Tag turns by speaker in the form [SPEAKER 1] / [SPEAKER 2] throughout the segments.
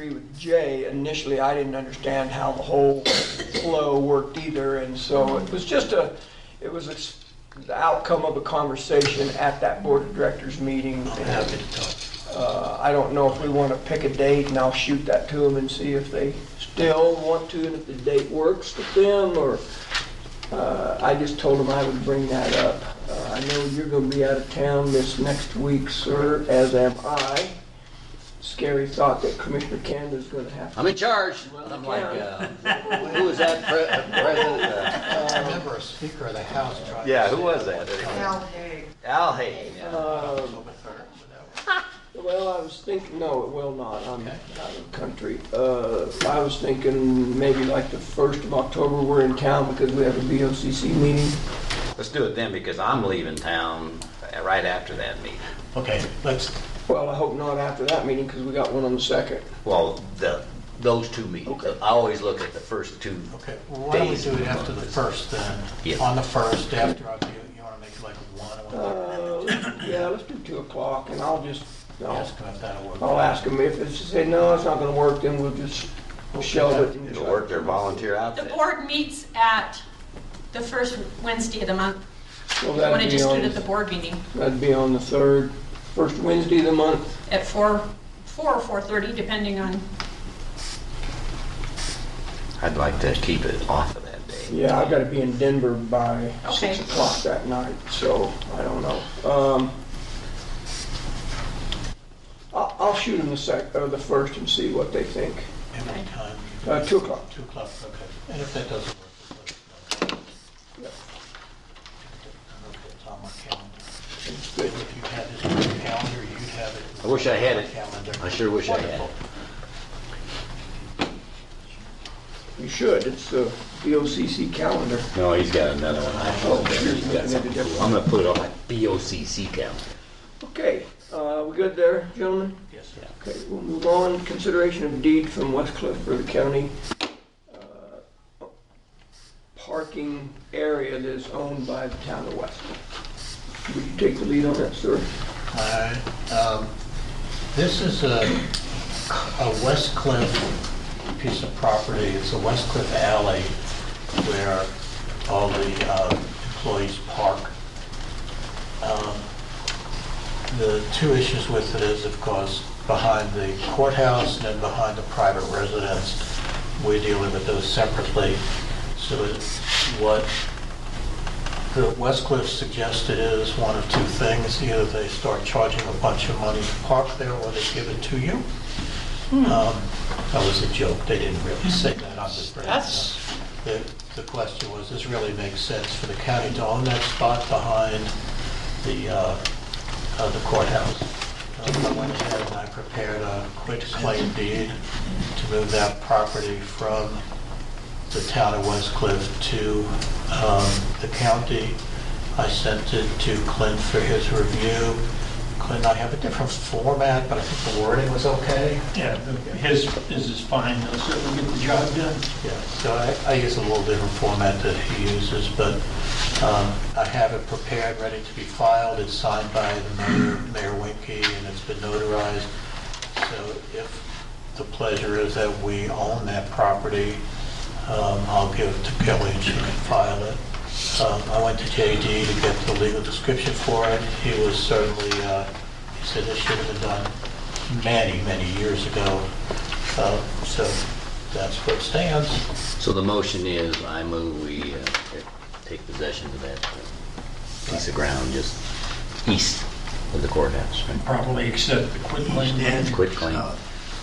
[SPEAKER 1] agree with Jay, initially, I didn't understand how the whole flow worked either, and so it was just a, it was a s- the outcome of a conversation at that board of directors meeting.
[SPEAKER 2] Happy to talk.
[SPEAKER 1] Uh, I don't know if we want to pick a date, and I'll shoot that to them and see if they still want to, and if the date works with them, or, uh, I just told them I would bring that up. Uh, I know you're going to be out of town this next week, sir, as am I. Scary thought that Commissioner Canada's going to have to
[SPEAKER 2] I'm in charge. I'm like, uh, who was that pre- uh, president? uh,
[SPEAKER 3] I remember a speaker of the House tried.
[SPEAKER 2] Yeah, who was that? Al Haig. Al Haig, yeah.
[SPEAKER 1] Um, Well, I was thinking, no, it will not, I'm out of country. Uh, I was thinking maybe like the first of October, we're in town because we have a BOCC meeting.
[SPEAKER 2] Let's do it then because I'm leaving town uh, right after that meeting.
[SPEAKER 3] Okay, let's,
[SPEAKER 1] Well, I hope not after that meeting because we got one on the second.
[SPEAKER 2] Well, the, those two meetings.
[SPEAKER 1] Okay.
[SPEAKER 2] I always look at the first two.
[SPEAKER 3] okay, well, why don't we
[SPEAKER 2] Days.
[SPEAKER 3] do it after the first
[SPEAKER 2] Yeah.
[SPEAKER 3] then? On the first, after, our- you- you want to make it like one or
[SPEAKER 1] Uh, Yeah, let's do two o'clock and I'll just, I'll,
[SPEAKER 3] Ask them if that'll work.
[SPEAKER 2] Oh,
[SPEAKER 1] I'll ask them if it's, say, no, it's not gonna work, then we'll just shelve it. and-
[SPEAKER 2] To work their volunteer
[SPEAKER 4] The
[SPEAKER 2] outfit.
[SPEAKER 4] board meets at the first Wednesday of the month.
[SPEAKER 1] Well,
[SPEAKER 4] I want to
[SPEAKER 1] that'd be
[SPEAKER 4] just do it at the
[SPEAKER 1] on,
[SPEAKER 4] board meeting
[SPEAKER 1] that'd be on the third, first Wednesday of the month.
[SPEAKER 4] at four, four or 4:30, depending on,
[SPEAKER 2] I'd like to keep it off of that day.
[SPEAKER 1] Yeah, I've got to be in Denver by
[SPEAKER 4] Okay.
[SPEAKER 1] six o'clock that night, so I don't know. Um, I'll, I'll shoot them the sec, or the first and see what they think.
[SPEAKER 3] Every time. you-
[SPEAKER 1] Uh, two o'clock.
[SPEAKER 3] Two o'clock, okay. And if that doesn't work, just let us know.
[SPEAKER 1] Yep.
[SPEAKER 3] I don't know if It's on my calendar.
[SPEAKER 1] It's good.
[SPEAKER 3] If you had this on your calendar, you'd have it.
[SPEAKER 2] I wish I had
[SPEAKER 3] on
[SPEAKER 2] it.
[SPEAKER 3] Calendar.
[SPEAKER 2] I sure wish I had it.
[SPEAKER 3] Wonderful.
[SPEAKER 1] You should, it's the BOCC calendar.
[SPEAKER 2] No, he's got another one. I
[SPEAKER 3] Oh,
[SPEAKER 2] hope he's got something cool. I'm gonna put it on my BOCC calendar.
[SPEAKER 1] Okay, uh, we good there, gentlemen?
[SPEAKER 3] Yes, sir.
[SPEAKER 1] Okay, we'll move on. Consideration of deed from West Cliff River County. uh, Parking area that is owned by the town of West. Would you take the lead on that, sir?
[SPEAKER 3] Alright, um, This is a, a West Cliff piece of property, it's a West Cliff alley where all the uh, employees park. Um, The two issues with it is, of course, behind the courthouse and then behind the private residence, we dealing with those separately. So it's what the Westcliff suggested is one of two things, either they start charging a bunch of money to park there, or they give it to you. Um, That was a joke, they didn't really say that, I'm just bringing it up.
[SPEAKER 5] That's-
[SPEAKER 3] The, the question was, does it really make sense for the county to own that spot behind the, uh, uh, the courthouse? Uh, I went ahead and I prepared a quick claim deed to move that property from the town of West Cliff to um, the county. I sent it to Clint for his review. Clint, I have a different format, but I think the wording was okay.
[SPEAKER 5] Yeah, the- his, his is fine, though, so we'll get the job done.
[SPEAKER 3] Yeah, so I, I use a little different format that he uses, but um, I have it prepared, ready to be filed, it's signed by the mayor, Mayor Winkie, and it's been notarized. So if the pleasure is that we own that property, um, I'll give it to Kelly and she can file it. Um, I went to JD to get the legal description for it, he was certainly, uh, he said this should have been done many, many years ago. Uh, So that's what stands.
[SPEAKER 2] So the motion is, I move we uh, take possession of that uh, piece of ground just east of the courthouse, right?
[SPEAKER 5] Probably accept the quit claim deed.
[SPEAKER 2] Quit claim.
[SPEAKER 5] Uh,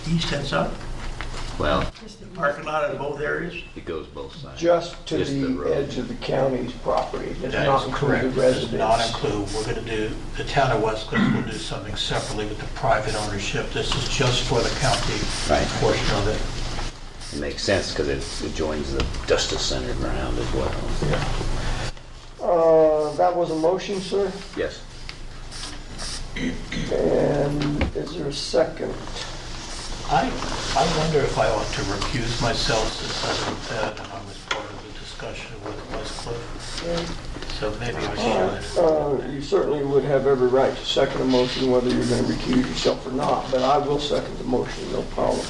[SPEAKER 5] East ends up,
[SPEAKER 2] Well,
[SPEAKER 5] parking lot in both areas.
[SPEAKER 2] it goes both sides.
[SPEAKER 1] Just to
[SPEAKER 2] Just the
[SPEAKER 1] the
[SPEAKER 2] road.
[SPEAKER 1] edge of the county's property, does
[SPEAKER 3] That
[SPEAKER 1] not
[SPEAKER 3] is
[SPEAKER 1] include the
[SPEAKER 3] correct. Does not
[SPEAKER 1] residents.
[SPEAKER 3] include, we're going to do, the town of West Cliff will do something separately with the private ownership. This is just for the county
[SPEAKER 2] Right.
[SPEAKER 3] portion of it.
[SPEAKER 2] It makes sense because it joins the Justice Center ground as well.
[SPEAKER 1] Uh, that was a motion, sir,
[SPEAKER 2] Yes.
[SPEAKER 1] and is there a second?
[SPEAKER 3] I, I wonder if I ought to recuse myself since I wrote that and I was part of the discussion with West Cliff. So maybe I should.
[SPEAKER 1] Uh, you certainly would have every right to second a motion whether you're gonna recuse yourself or not, but I will second the motion, no problem.